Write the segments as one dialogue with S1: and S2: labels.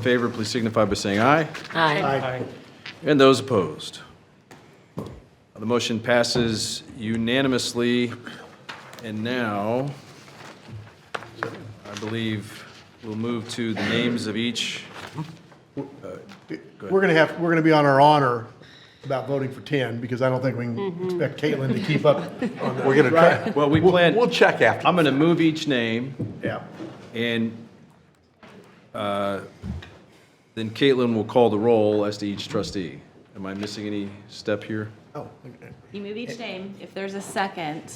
S1: favor, please signify by saying aye.
S2: Aye.
S1: And those opposed? The motion passes unanimously. And now, I believe we'll move to the names of each.
S3: We're going to have, we're going to be on our honor about voting for 10, because I don't think we can expect Caitlin to keep up on that.
S4: We're going to try,
S1: Well, we plan,
S4: we'll check after.
S1: I'm going to move each name,
S3: Yeah.
S1: and uh, then Caitlin will call the roll as to each trustee. Am I missing any step here?
S3: Oh, okay.
S2: You move each name. If there's a second,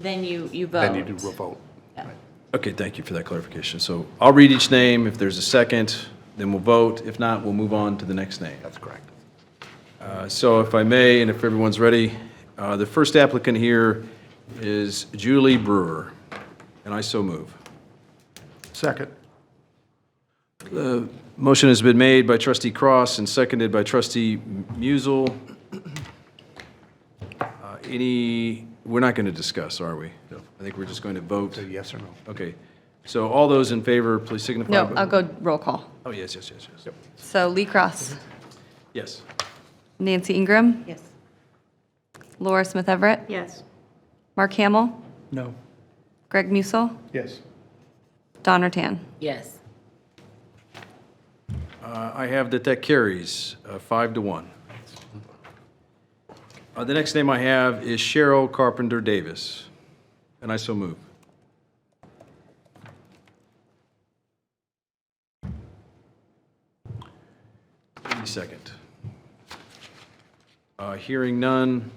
S2: then you, you vote.
S4: Then you do a vote.
S2: Yeah.
S1: Okay, thank you for that clarification. So I'll read each name. If there's a second, then we'll vote. If not, we'll move on to the next name.
S4: That's correct.
S1: Uh, So if I may, and if everyone's ready, uh, the first applicant here is Julie Brewer, and I so move.
S3: Second.
S1: Motion has been made by trustee Cross and seconded by trustee Musel. Uh, Any, we're not going to discuss, are we? No. I think we're just going to vote.
S4: So yes or no?
S1: Okay. So all those in favor, please signify.
S5: No,
S1: by-
S5: I'll go roll call.
S1: Oh, yes, yes, yes, yes.
S5: So Lee Cross,
S1: Yes.
S5: Nancy Ingram,
S2: Yes.
S5: Laura Smith Everett,
S2: Yes.
S5: Mark Hamill. No. Greg Musel,
S3: Yes.
S5: Don Tan.
S2: Yes.
S1: Uh, I have that that carries, uh, five to one. Uh, The next name I have is Cheryl Carpenter Davis, and I so move. Any second. Uh, Hearing none,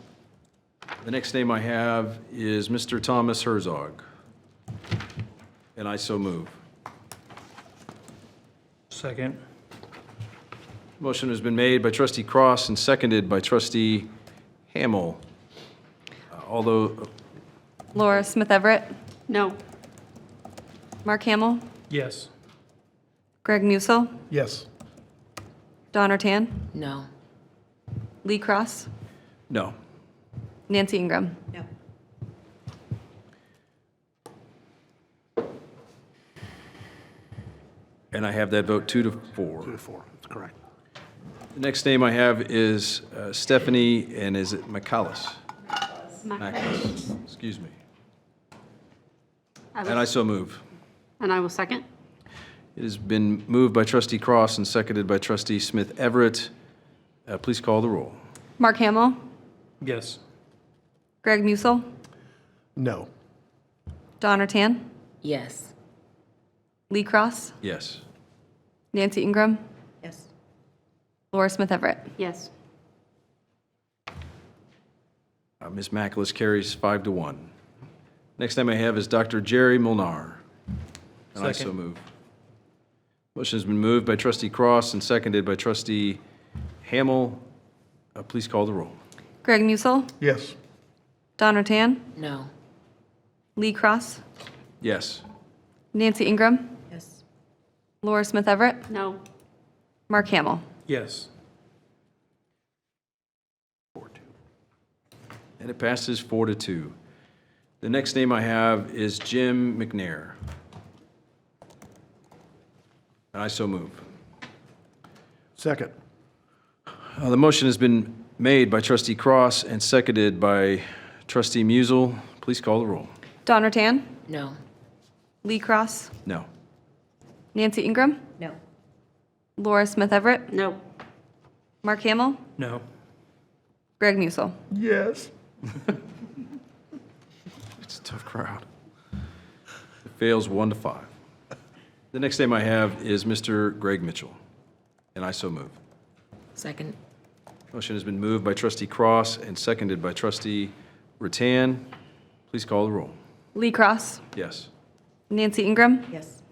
S1: the next name I have is Mr. Thomas Herzog, and I so move.
S6: Second.
S1: Motion has been made by trustee Cross and seconded by trustee Hamel. Uh, Although,
S5: Laura Smith Everett,
S2: No.
S5: Mark Hamill,
S6: Yes.
S5: Greg Musel,
S3: Yes.
S5: Don Tan,
S2: No.
S5: Lee Cross,
S1: no.
S5: Nancy Ingram.
S2: No.
S1: And I have that vote two to four.
S4: Two to four, that's correct.
S1: The next name I have is uh, Stephanie, and is it McCallus? McCallus, excuse me. And I so move.
S7: And I will second.
S1: It has been moved by trustee Cross and seconded by trustee Smith Everett. Uh, Please call the roll.
S5: Mark Hamill,
S6: Yes.
S5: Greg Musel,
S3: No.
S5: Don Tan,
S2: Yes.
S5: Lee Cross,
S1: Yes.
S5: Nancy Ingram,
S2: Yes.
S5: Laura Smith Everett.
S7: Yes.
S1: Uh, Ms. Maculus carries five to one. Next name I have is Dr. Jerry Molnar. And I so
S6: Second.
S1: move. Motion's been moved by trustee Cross and seconded by trustee Hamel. Uh, Please call the roll.
S5: Greg Musel,
S3: Yes.
S5: Don Tan,
S2: No.
S5: Lee Cross,
S1: Yes.
S5: Nancy Ingram,
S2: Yes.
S5: Laura Smith Everett,
S7: No.
S5: Mark Hamill.
S6: Yes.
S1: And it passes four to two. The next name I have is Jim McNair. And I so move.
S3: Second.
S1: Uh, The motion has been made by trustee Cross and seconded by trustee Musel. Please call the roll.
S5: Don Tan,
S2: No.
S5: Lee Cross,
S1: No.
S5: Nancy Ingram,
S2: No.
S5: Laura Smith Everett,
S7: No.
S5: Mark Hamill,
S6: No.
S5: Greg Musel.
S3: Yes.
S1: It's a tough crowd. It fails one to five. The next name I have is Mr. Greg Mitchell, and I so move.
S2: Second.
S1: Motion has been moved by trustee Cross and seconded by trustee Ratan. Please call the roll.
S5: Lee Cross,
S1: Yes.
S5: Nancy Ingram,
S2: Yes.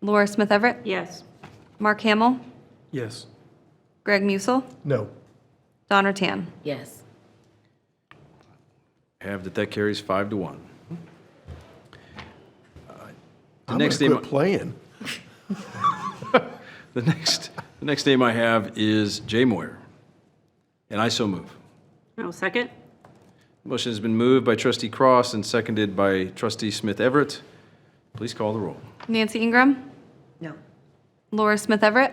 S5: Laura Smith Everett,
S7: Yes.
S5: Mark Hamill,
S6: Yes.
S5: Greg Musel,
S3: No.
S5: Don Tan.
S2: Yes.
S1: Have that that carries five to one. Uh, The
S3: I'm going
S1: next
S3: to
S1: name.
S3: quit playing.
S1: The next, the next name I have is Jay Moyer, and I so move.
S7: I will second.
S1: Motion has been moved by trustee Cross and seconded by trustee Smith Everett. Please call the roll.
S5: Nancy Ingram,
S2: No.
S5: Laura Smith Everett?